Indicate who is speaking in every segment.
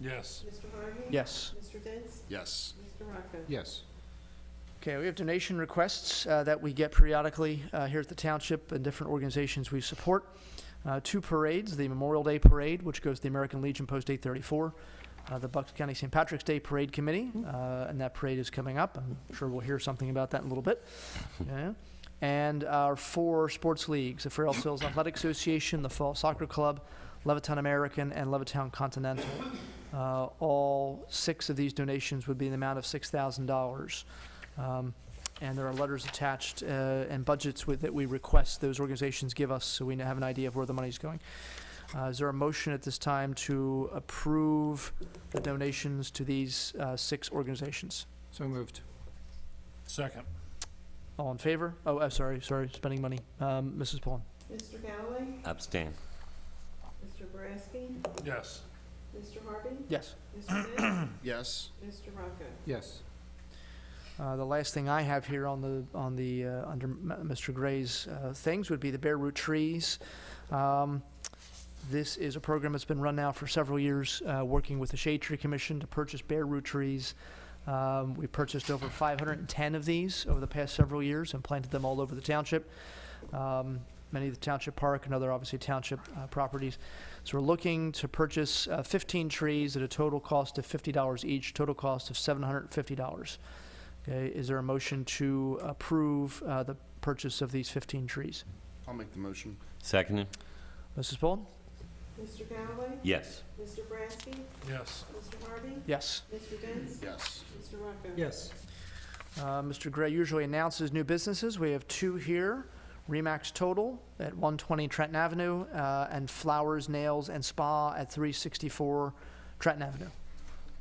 Speaker 1: Yes.
Speaker 2: Mr. Harvey?
Speaker 3: Yes.
Speaker 2: Mr. Vince?
Speaker 4: Yes.
Speaker 2: Mr. Rocco?
Speaker 4: Yes.
Speaker 3: Okay, we have donation requests uh, that we get periodically uh, here at the township and different organizations we support. Uh, Two parades, the Memorial Day Parade, which goes to the American Legion Post 834, uh, the Bucks County St. Patrick's Day Parade Committee, uh, and that parade is coming up. I'm sure we'll hear something about that in a little bit. Yeah. And our four sports leagues, the Farrell Hills Athletic Association, the Fall Soccer Club, Levittown American, and Levittown Continental. Uh, All six of these donations would be in the amount of $6,000. Um, And there are letters attached uh, and budgets with, that we request those organizations give us, so we have an idea of where the money's going. Uh, Is there a motion at this time to approve the donations to these uh, six organizations?
Speaker 5: So moved.
Speaker 1: Second.
Speaker 3: All in favor? Oh, I'm sorry, sorry, spending money. Um, Mrs. Pullen?
Speaker 2: Mr. Galloway?
Speaker 6: abstain,
Speaker 2: Mr. Boraski?
Speaker 1: Yes.
Speaker 2: Mr. Harvey?
Speaker 3: Yes.
Speaker 2: Mr. Vince?
Speaker 4: Yes.
Speaker 2: Mr. Rocco?
Speaker 5: Yes.
Speaker 3: Uh, The last thing I have here on the, on the, uh, under M- Mr. Gray's uh, things would be the bare root trees. Um, This is a program that's been run now for several years, uh, working with the Shade Tree Commission to purchase bare root trees. Um, We purchased over 510 of these over the past several years and planted them all over the township. Um, Many of the township park and other obviously township uh, properties. So we're looking to purchase uh, 15 trees at a total cost of $50 each, total cost of $750. Okay, is there a motion to approve uh, the purchase of these 15 trees?
Speaker 4: I'll make the motion.
Speaker 6: seconded,
Speaker 3: Mrs. Pullen?
Speaker 2: Mr. Galloway?
Speaker 6: yes,
Speaker 2: Mr. Boraski?
Speaker 1: Yes.
Speaker 2: Mr. Harvey?
Speaker 3: Yes.
Speaker 2: Mr. Vince?
Speaker 4: Yes.
Speaker 2: Mr. Rocco?
Speaker 5: Yes.
Speaker 3: Uh, Mr. Gray usually announces new businesses. We have two here, Remax Total at 120 Trenton Avenue, uh, and Flowers Nails and Spa at 364 Trenton Avenue.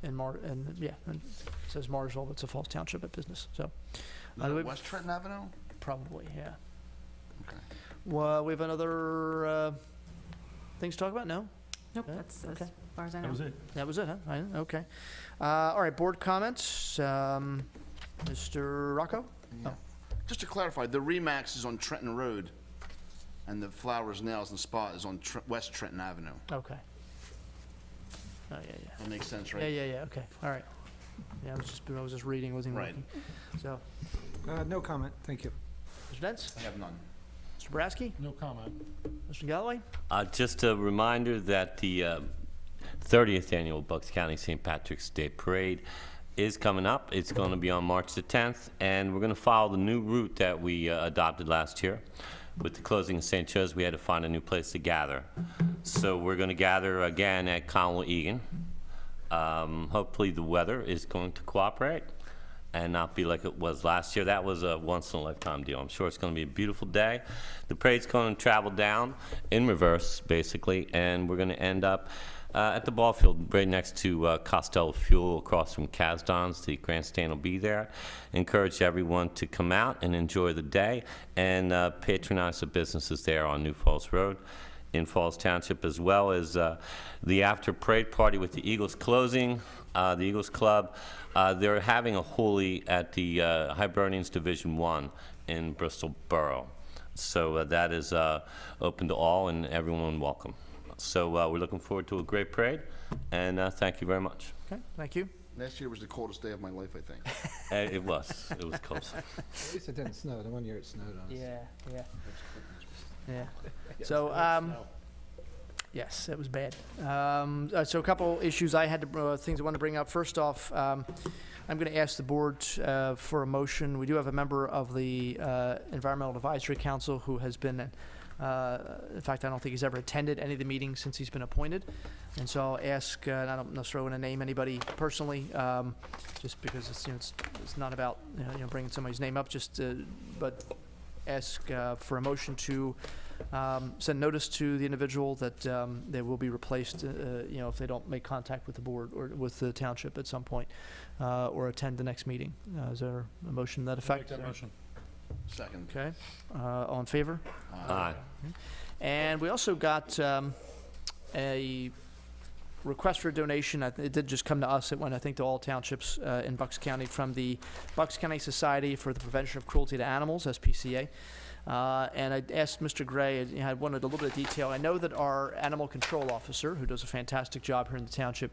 Speaker 3: In Mar, and, yeah, and it says Marsville, but it's a Falls Township at business, so.
Speaker 4: Is
Speaker 3: Uh,
Speaker 4: that
Speaker 3: we-
Speaker 4: West Trenton Avenue?
Speaker 3: Probably, yeah.
Speaker 4: Okay.
Speaker 3: Well, we have another, uh, things to talk about? No?
Speaker 7: Nope,
Speaker 3: Yeah,
Speaker 7: that's
Speaker 3: okay.
Speaker 7: as far as I know.
Speaker 1: it.
Speaker 3: That was it, huh? I- Okay. Uh, All right, board comments. Um, Mr. Rocco?
Speaker 4: Just to clarify, the Remax is on Trenton Road, and the Flowers Nails and Spa is on Tr- West Trenton Avenue.
Speaker 3: Okay. Oh, yeah, yeah.
Speaker 4: That makes sense,
Speaker 3: Yeah,
Speaker 4: right?
Speaker 3: yeah, yeah, okay, all right. Yeah, I was just, I was just reading, wasn't even
Speaker 4: Right.
Speaker 3: looking. So,
Speaker 5: Uh, no comment, thank you.
Speaker 3: Mr. Dents,
Speaker 4: I have none.
Speaker 3: Mr. Boraski,
Speaker 1: No comment.
Speaker 3: Mr. Galloway?
Speaker 6: Uh, Just a reminder that the uh, 30th Annual Bucks County St. Patrick's Day Parade is coming up. It's going to be on March the 10th, and we're going to follow the new route that we uh, adopted last year. With the closing of St. Joe's, we had to find a new place to gather. So we're going to gather again at Conwell Egan. Um, Hopefully, the weather is going to cooperate and not be like it was last year. That was a once-in-a-lifetime deal. I'm sure it's going to be a beautiful day. The parade's going to travel down in reverse, basically, and we're going to end up uh, at the ball field right next to uh, Costello Fuel across from Kazdon's. The grandstand will be there. Encourage everyone to come out and enjoy the day and uh, patronize the businesses there on New Falls Road in Falls Township, as well as uh, the after parade party with the Eagles closing, uh, the Eagles Club. Uh, They're having a hooli at the uh, Hibernians Division One in Bristol Borough. So uh, that is uh, open to all and everyone welcome. So uh, we're looking forward to a great parade, and uh, thank you very much.
Speaker 3: Okay, thank you.
Speaker 4: Last year was the coldest day of my life, I think.
Speaker 6: Uh, It was, it was close.
Speaker 5: At least it didn't snow, the one year it snowed on us.
Speaker 3: yeah. Yeah, so, um, yes, it was bad. Um, uh, so a couple issues I had to, uh, things I want to bring up. First off, um, I'm going to ask the board, uh, for a motion. We do have a member of the, uh, Environmental Advisory Council who has been, uh, in fact, I don't think he's ever attended any of the meetings since he's been appointed. And so I'll ask, uh, and I don't necessarily want to name anybody personally, um, just because it's, you know, it's, it's not about, you know, you know, bringing somebody's name up, just, uh, but ask, uh, for a motion to, um, send notice to the individual that um, they will be replaced, uh, you know, if they don't make contact with the board or with the township at some point, uh, or attend the next meeting. Uh, Is there a motion to that
Speaker 1: Make
Speaker 3: effect?
Speaker 1: that motion.
Speaker 4: Second.
Speaker 3: Okay, Uh, all in favor?
Speaker 6: Aye.
Speaker 3: And we also got um, a request for a donation. I th- It did just come to us. It went, I think, to all townships uh, in Bucks County from the Bucks County Society for the Prevention of Cruelty to Animals, SPCA. Uh, And I asked Mr. Gray, and I wanted a little bit of detail. I know that our animal control officer, who does a fantastic job here in the township,